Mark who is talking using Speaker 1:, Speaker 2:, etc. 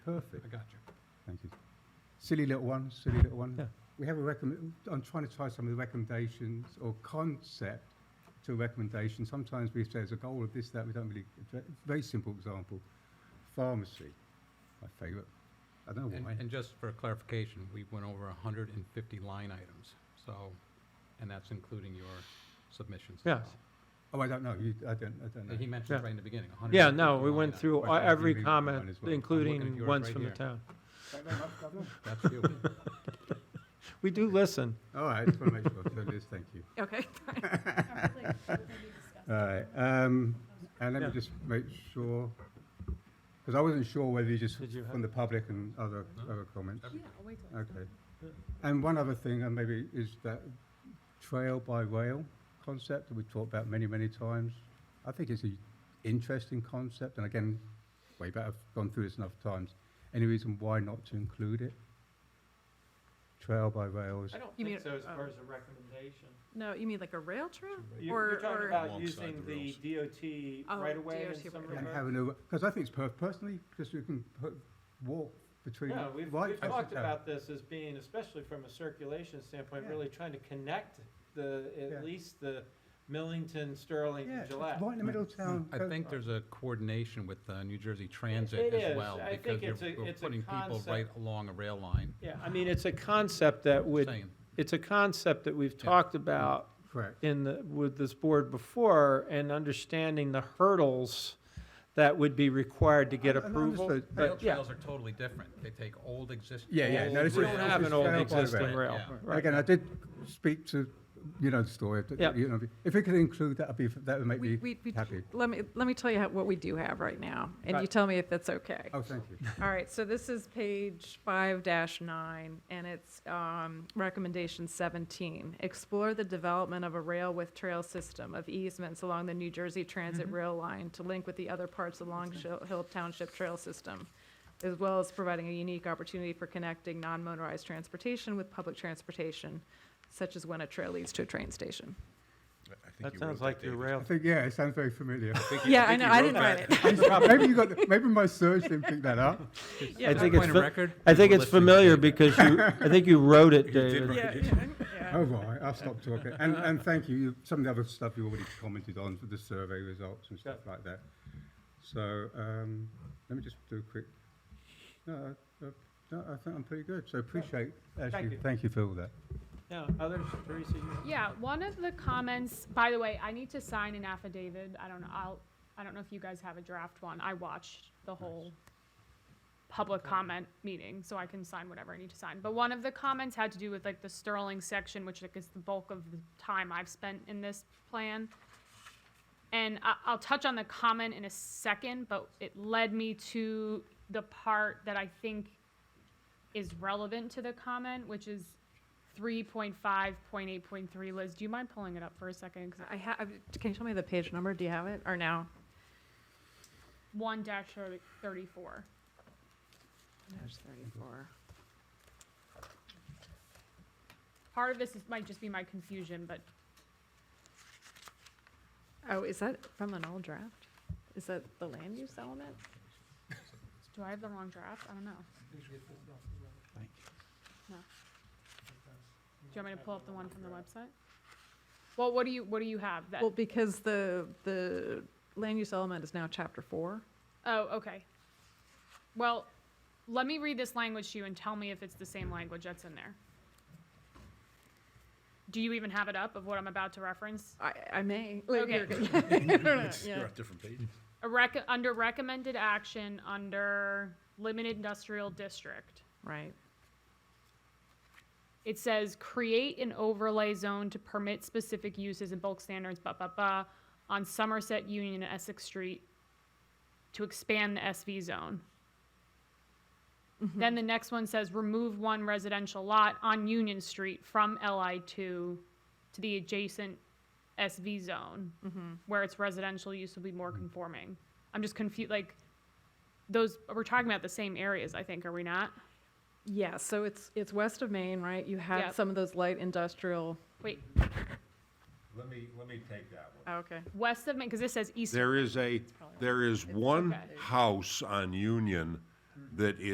Speaker 1: Perfect.
Speaker 2: I got you.
Speaker 1: Thank you. Silly little one, silly little one.
Speaker 2: Yeah.
Speaker 1: We have a recommend, I'm trying to tie some of the recommendations or concept to a recommendation. Sometimes we say there's a goal of this, that, we don't really address. Very simple example, pharmacy, my favourite. I
Speaker 3: Oh,
Speaker 1: don't know
Speaker 2: And,
Speaker 1: why.
Speaker 2: and just for clarification, we went over hundred and fifty line items, so, and that's including your submissions as
Speaker 3: Yes.
Speaker 2: well.
Speaker 1: Oh, I don't know, you, I don't, I don't
Speaker 2: He
Speaker 1: know.
Speaker 2: mentioned
Speaker 3: Yeah.
Speaker 2: right in the beginning, hundred and
Speaker 3: Yeah,
Speaker 2: fifty line
Speaker 3: no,
Speaker 2: items.
Speaker 3: we went through
Speaker 1: Well, I
Speaker 3: a-
Speaker 1: can
Speaker 3: every
Speaker 1: read one
Speaker 3: comment,
Speaker 1: as well. I'm
Speaker 2: looking at
Speaker 3: including
Speaker 2: yours
Speaker 3: ones
Speaker 2: right
Speaker 3: from the
Speaker 2: here.
Speaker 3: town.
Speaker 1: Don't know much, don't know.
Speaker 2: That's you.
Speaker 3: We do listen.
Speaker 1: All right, just want to make sure, so Liz, thank you.
Speaker 4: Okay.
Speaker 1: All right, um, and let me
Speaker 3: Yeah.
Speaker 1: just make sure, because I wasn't sure whether you just
Speaker 3: Did you
Speaker 1: from
Speaker 3: have?
Speaker 1: the public and other,
Speaker 2: No.
Speaker 1: other comments.
Speaker 2: Every-
Speaker 1: Okay. And one other thing, and maybe is that trail by rail concept that we've talked about many, many times. I think it's an interesting concept, and again, way back, I've gone through this enough times. Any reason why not to include it? Trail by rail is,
Speaker 5: I don't
Speaker 4: You
Speaker 5: think
Speaker 4: mean,
Speaker 5: so as
Speaker 4: um,
Speaker 5: far as a recommendation.
Speaker 4: No, you mean like a rail trail?
Speaker 5: You-
Speaker 4: Or-
Speaker 5: You're
Speaker 4: or-
Speaker 5: talking about
Speaker 2: Alongside
Speaker 5: using
Speaker 2: the
Speaker 5: the
Speaker 2: rails.
Speaker 5: DOT
Speaker 4: Oh,
Speaker 5: right away
Speaker 4: DOT
Speaker 5: in some
Speaker 4: right
Speaker 1: and
Speaker 4: away.
Speaker 5: regard.
Speaker 1: having a, because I think it's per, personally, because you can put, walk between.
Speaker 5: No, we've,
Speaker 1: right
Speaker 5: we've
Speaker 1: passes
Speaker 5: talked
Speaker 1: down.
Speaker 5: about this as being, especially from a circulation standpoint,
Speaker 1: Yeah.
Speaker 5: really trying to connect the,
Speaker 1: Yeah.
Speaker 5: at least the Millington, Sterling,
Speaker 1: Yeah,
Speaker 5: and
Speaker 1: it's
Speaker 5: Gillette.
Speaker 1: right in the middle of town.
Speaker 2: I
Speaker 1: go-
Speaker 2: think there's a coordination with, uh, New Jersey
Speaker 5: It
Speaker 2: Transit
Speaker 5: is.
Speaker 2: as well,
Speaker 5: I think
Speaker 2: because
Speaker 5: it's a-
Speaker 2: you're, we're
Speaker 5: it's a
Speaker 2: putting people
Speaker 5: concept.
Speaker 2: right along a rail line,
Speaker 5: Yeah, I mean, it's a concept that would,
Speaker 2: saying,
Speaker 3: It's a concept that we've
Speaker 2: Yeah.
Speaker 3: talked about
Speaker 1: Correct.
Speaker 3: in the, with this board before and understanding the hurdles that would be required to get
Speaker 1: I- I
Speaker 3: approval.
Speaker 1: understood.
Speaker 2: rail
Speaker 3: But uh, yeah,
Speaker 2: trails are totally different. They take old existing.
Speaker 1: Yeah, yeah, no, this
Speaker 3: we
Speaker 1: is-
Speaker 3: don't
Speaker 1: this
Speaker 3: have
Speaker 1: is
Speaker 3: an old
Speaker 1: trail by
Speaker 3: existing
Speaker 1: rail.
Speaker 3: rail.
Speaker 2: Yeah.
Speaker 1: And
Speaker 3: Right.
Speaker 1: Again, I did speak to, you know, the story, that-
Speaker 3: Yeah.
Speaker 1: you know, if we could include that, would be, that would make
Speaker 4: We-
Speaker 1: me
Speaker 4: we- we-
Speaker 1: happy.
Speaker 4: Let me, let me tell you how- what we do have right now, and you
Speaker 3: Right.
Speaker 4: tell me if that's okay.
Speaker 1: Oh, thank you.
Speaker 4: All right, so this is page five dash nine, and it's, um, recommendation seventeen. Explore the development of a rail with trail system of easements along the New Jersey Transit Rail Line to link with the other parts along Shil- Hill Township Trail System, as well as providing a unique opportunity for connecting non-motorized transportation with public transportation, such as when a trail leads to a train station.
Speaker 3: that sounds like your rail.
Speaker 1: I think, yeah, it sounds very familiar.
Speaker 4: Yeah, I know, I didn't write it.
Speaker 1: Maybe you got, maybe my search didn't pick that up.
Speaker 3: I think it's,
Speaker 2: Point of
Speaker 3: fa-
Speaker 2: record,
Speaker 3: I think
Speaker 2: people
Speaker 3: it's
Speaker 2: listening to
Speaker 3: familiar
Speaker 2: tape.
Speaker 3: because you, I think you wrote it, David.
Speaker 4: Yeah, yeah, yeah.
Speaker 1: Oh, right, I'll stop talking. And, and thank you. You- Some of the other stuff you already commented on, for the survey results and stuff like that. So, um, let me just do a quick, no, I- I- no, I think I'm pretty good. So appreciate, actually,
Speaker 5: you.
Speaker 1: thank you for all that.
Speaker 5: Now, others, Teresa, you?
Speaker 6: Yeah, one of the comments, by the way, I need to sign an affidavit. I don't know, I'll, I don't know if you guys have a draft one. I watched the whole public comment meeting, so I can sign whatever I need to sign. But one of the comments had to do with like the Sterling section, which like is the bulk of the time I've spent in this plan. And I, I'll touch on the comment in a second, but it led me to the part that I think is relevant to the comment, which is three point five point eight point three. Liz, do you mind pulling it up for a second? 'Cause I-
Speaker 4: I ha- I- can you tell me the page number? Do you have it, or no?
Speaker 6: One dash thirty-four.
Speaker 4: There's thirty-four.
Speaker 6: Part of this is, might just be my confusion, but
Speaker 4: Oh, is that from an old draft? Is that the land use element?
Speaker 6: do I have the wrong draft? I don't know. No. Do you want me to pull up the one from the website? Well, what do you, what do you have? That,
Speaker 4: Well,
Speaker 6: oh,
Speaker 4: because the, the land use element is now chapter four.
Speaker 6: oh, okay. Well, let me read this language to you and tell me if it's the same language that's in there. Do you even have it up of what I'm about to reference?
Speaker 4: I, I may. like,
Speaker 6: Okay.
Speaker 4: you're- I don't know, yeah.
Speaker 7: different page.
Speaker 6: A rec- under recommended action under limited industrial district.
Speaker 4: Right.
Speaker 6: It says create an overlay zone to permit specific uses and bulk standards, blah, blah, blah, on Somerset Union and Essex Street to expand the SV zone. Then the next one says remove one residential lot on Union Street from LI two to the adjacent SV zone, where its residential use will be more conforming. I'm just confused, like, those, we're talking about the same areas, I think, are we not?
Speaker 4: Yeah, so it's, it's west of Maine, right? You have
Speaker 6: Yep.
Speaker 4: some of those light industrial,
Speaker 6: Wait,
Speaker 7: Let me, let me take that one.
Speaker 4: oh, okay.
Speaker 6: west of Maine, because this says east.
Speaker 8: There is a, there is one
Speaker 6: okay.
Speaker 8: house on Union that is.